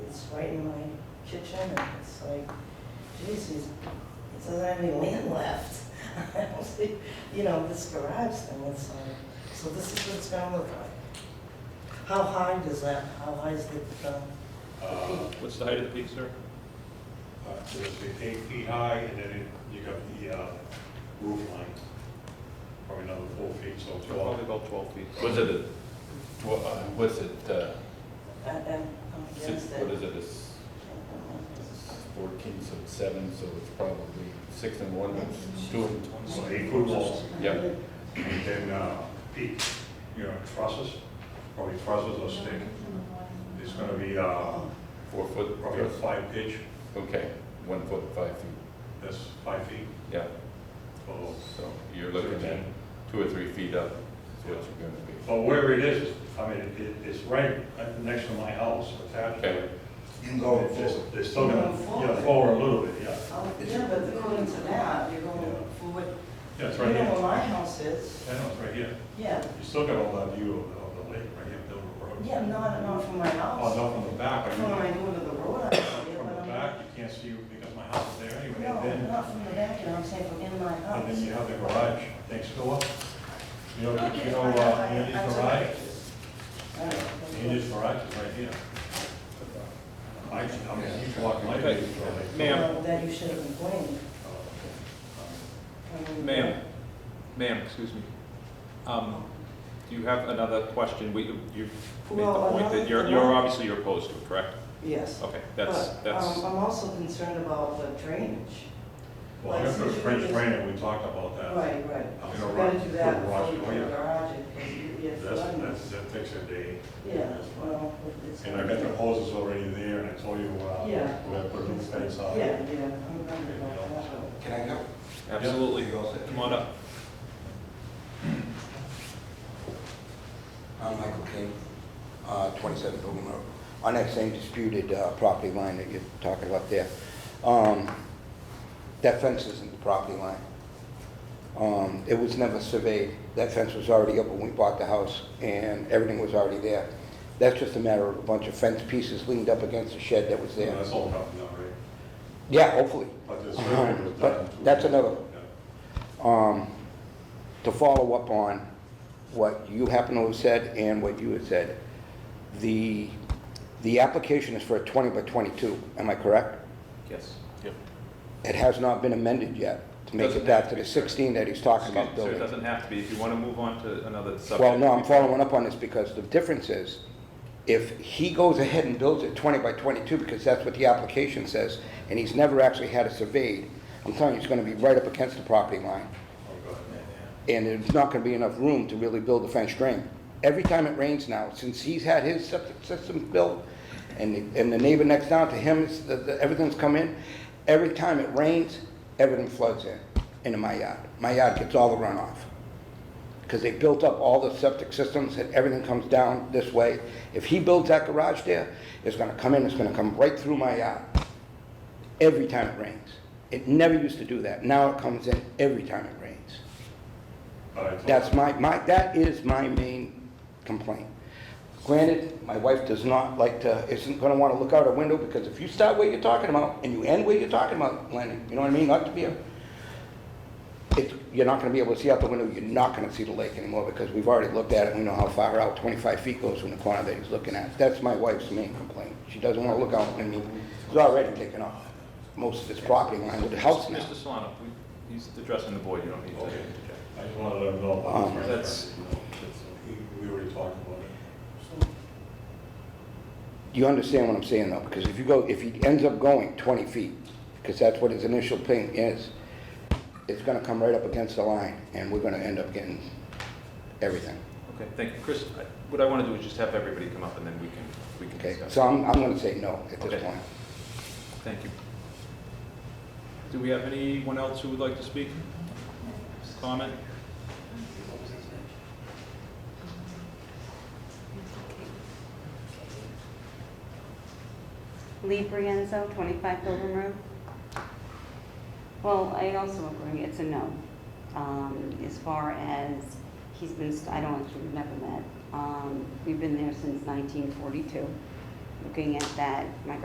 right in my kitchen, and it's like, geez, it's- it doesn't have any land left. I don't see- You know, this garage thing, it's like, so this is what it's gonna look like. How high does that, how high is the, um, Uh, What's the height of the peak, sir? uh, So it's eight feet high, and then it- you got the uh, roof line, probably another four feet, so twelve. Probably about 12 feet. Was it a, tw- uh, was it, uh, I- I'm I'm six, against it. what is it, a s- fourteen, so it's seven, so it's probably six and one, it's two and So twenty. eight foot walls, Yep, and then uh, peak, you know, trusses, probably trusses or stick. It's gonna be uh, four foot, probably a five pitch, okay, one foot, five feet, that's five feet, yeah, so. so you're looking at two or three feet up, is what you're gonna be. But where it is, I mean, it- it- it's right uh, next to my house, attached to Okay, it. You go It's just- forward. They're still gonna, Going yeah, forward. forward a little bit, yeah. Oh, Yeah, but according to that, you're going Yeah. forward, Yeah, it's you right know where here. my house is, I know, it's right here. yeah, You still got all that view of the, of the lake right here, Dover Road. yeah, not, not from my Oh, house. no, from the back, I From when I mean, go to the road, I see it, from but the I'm back, you can't see, because my house is there anyway, No, and then, not from the back, you know, I'm saying from in my and then house. you have the garage, thanks, Philip. You know, you know, uh, Andy's garage, Andy's garage is right here. I, I mean, he's walking my Uh, Okay. Andy's garage. Ma'am. That you should have complained. I mean, Ma'am, ma'am, excuse me. Um, Do you have another question? We, you've made the Well, point another- that you're, you're obviously you're opposed to, it, correct? Yes. Okay, that's, But, that's, um, I'm also concerned about the drainage. Well, I'm gonna put a French drain in, we talked about that. Right, right. I'm So gonna we rock- gotta do that put a rock- before you oh, put yeah. the garage in, because you get That's, flooding. that's, that takes a day. Yeah, well, it's. And I got the hoses already there, and I told you, uh, we Yeah. have to put a roof fence Yeah, on. yeah, I'm, I'm about that. Can I go? absolutely. You all set? Come on up. I'm Michael King, uh, 27 Pilgrim Road, on that same disputed uh, property line that you're talking about there. Um, That fence isn't the property line. Um, It was never surveyed. That fence was already up when we bought the house, and everything was already there. That's just a matter of a bunch of fence pieces leaned up against the shed that was Yeah, there. That's all done, now, right? Yeah, hopefully. But the survey was Uh-huh. But done. in two that's weeks. another- Yeah. um, to follow up on what you happen to have said and what you had said, the, the application is for a 20 by 22, am I correct? Yes. It has not been amended yet to make Doesn't have it back to to be, the sir. 16 that he's Excuse talking me, about sir, it building. doesn't have to be. If you want to move on to another subject. Well, no, I'm we- following up on this because the difference is, if he goes ahead and builds it 20 by 22, because that's what the application says, and he's never actually had it surveyed, I'm telling you, it's going to be right up against the property line. Oh, go ahead. and there's not gonna be enough room to really build a French drain. Every time it rains now, since he's had his septic system built, and, the- and the neighbor next down to him, it's- the- the- everything's come in, every time it rains, everything floods in, into my yard. My yard gets all the runoff. Because they built up all the septic systems, and everything comes down this way. If he builds that garage there, it's gonna come in, it's gonna come right through my yard, every time it rains. It never used to do that, now it comes in every time it rains. But I told- That's my, my, that is my main complaint. Granted, my wife does not like to, isn't gonna wanna look out her window, because if you start where you're talking about, and you end where you're talking about, Lenny, you know what I mean, not to be a, it, you're not gonna be able to see out the window, you're not gonna see the lake anymore, because we've already looked at it, we know how far out, twenty-five feet goes from the corner that he's looking at. That's my wife's main complaint. She doesn't wanna look out, I mean, it's already taken off most of its property line with the house now. Mr. Solano, we- he's addressing the board. You don't need to Okay. interject. I just wanted to let him know. about the Um, French That's- drain, you know, it's- We we already talked about it. You understand what I'm saying though, because if you go, if he ends up going 20 feet, because that's what his initial thing is, it's gonna come right up against the line, and we're gonna end up getting everything, Okay, thank you. Chris, I- what I want to do is just have everybody come up and then we can, we can okay? discuss. So I'm, I'm gonna say no at this Okay. point. Thank you. Do we have anyone else who would like to speak? Comment? Lee Brienzo, 25 Pilgrim Road. Well, I also agree, it's a no. Um, As far as, he's been, st- I don't actually, we've never met. Um, We've been there since 1942. Looking at that, my